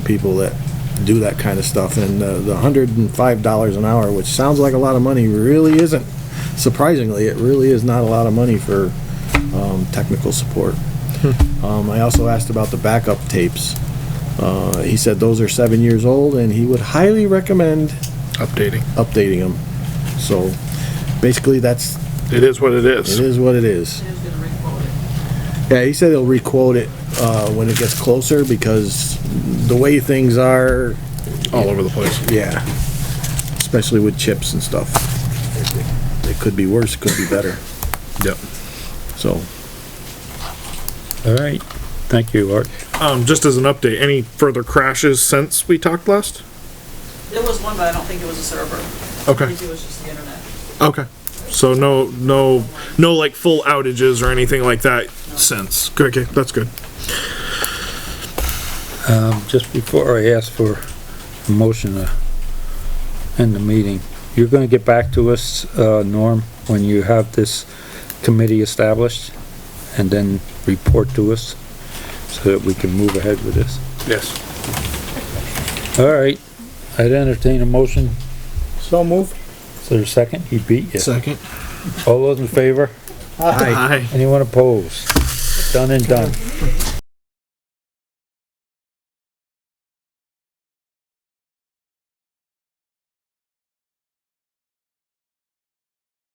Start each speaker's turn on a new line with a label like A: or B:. A: people that do that kind of stuff, and uh, the hundred and five dollars an hour, which sounds like a lot of money, really isn't. Surprisingly, it really is not a lot of money for, um, technical support. Um, I also asked about the backup tapes. Uh, he said those are seven years old, and he would highly recommend
B: updating.
A: updating them. So, basically, that's,
B: It is what it
A: it
B: is.
A: is what it is.
C: It is gonna requote it.
A: Yeah, he said he'll requote it, uh, when it gets closer, because the way things are,
B: All over the place.
A: yeah, especially with chips and stuff. It- It could be worse, it could be better,
B: Yep.
A: so.
D: All right, thank you, Art.
B: Um, just as an update, any further crashes since we talked last?
C: There was one, but I don't think it was a server. I
B: Okay,
C: think it was just the internet.
B: okay. So no, no, no like full outages or anything like that since. Good, Okay, that's good.
D: Um, just before I ask for a motion to end the meeting, you're gonna get back to us, uh, Norm, when you have this committee established, and then report to us, so that we can move ahead with this.
B: Yes.
D: All right, I'd entertain a motion. So moved. Is there a second? He beat you.
B: Second.
D: All those in favor?
A: Hi.
B: Aye.
D: Anyone opposed? Done and done.